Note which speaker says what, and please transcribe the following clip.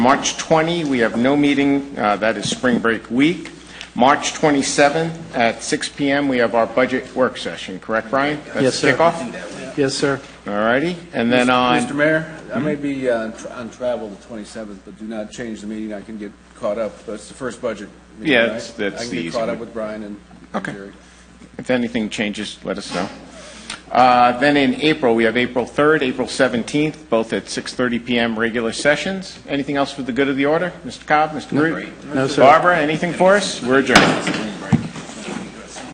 Speaker 1: March 20, we have no meeting, uh, that is spring break week. March 27 at 6 PM, we have our budget work session, correct, Brian?
Speaker 2: Yes, sir.
Speaker 1: That's the kickoff?
Speaker 2: Yes, sir.
Speaker 1: All righty, and then on... Hmm?
Speaker 3: Mr. Mayor, I may be uh, on tra- on travel the 27th, but do not change the meeting. I can get caught up. But it's the first budget meeting,
Speaker 1: Yeah,
Speaker 3: right?
Speaker 1: it's- that's
Speaker 3: I can
Speaker 1: the
Speaker 3: get
Speaker 1: easy
Speaker 3: caught
Speaker 1: one.
Speaker 3: up with Brian and and
Speaker 1: Okay.
Speaker 3: Jerry.
Speaker 1: If anything changes, let us know. Uh, Then in April, we have April 3rd, April 17th, both at 6:30 PM, regular sessions. Anything else for the good of the order? Mr. Cobb, Mr. Groot?
Speaker 2: No, sir.
Speaker 1: Barbara, anything for us? We're adjourned.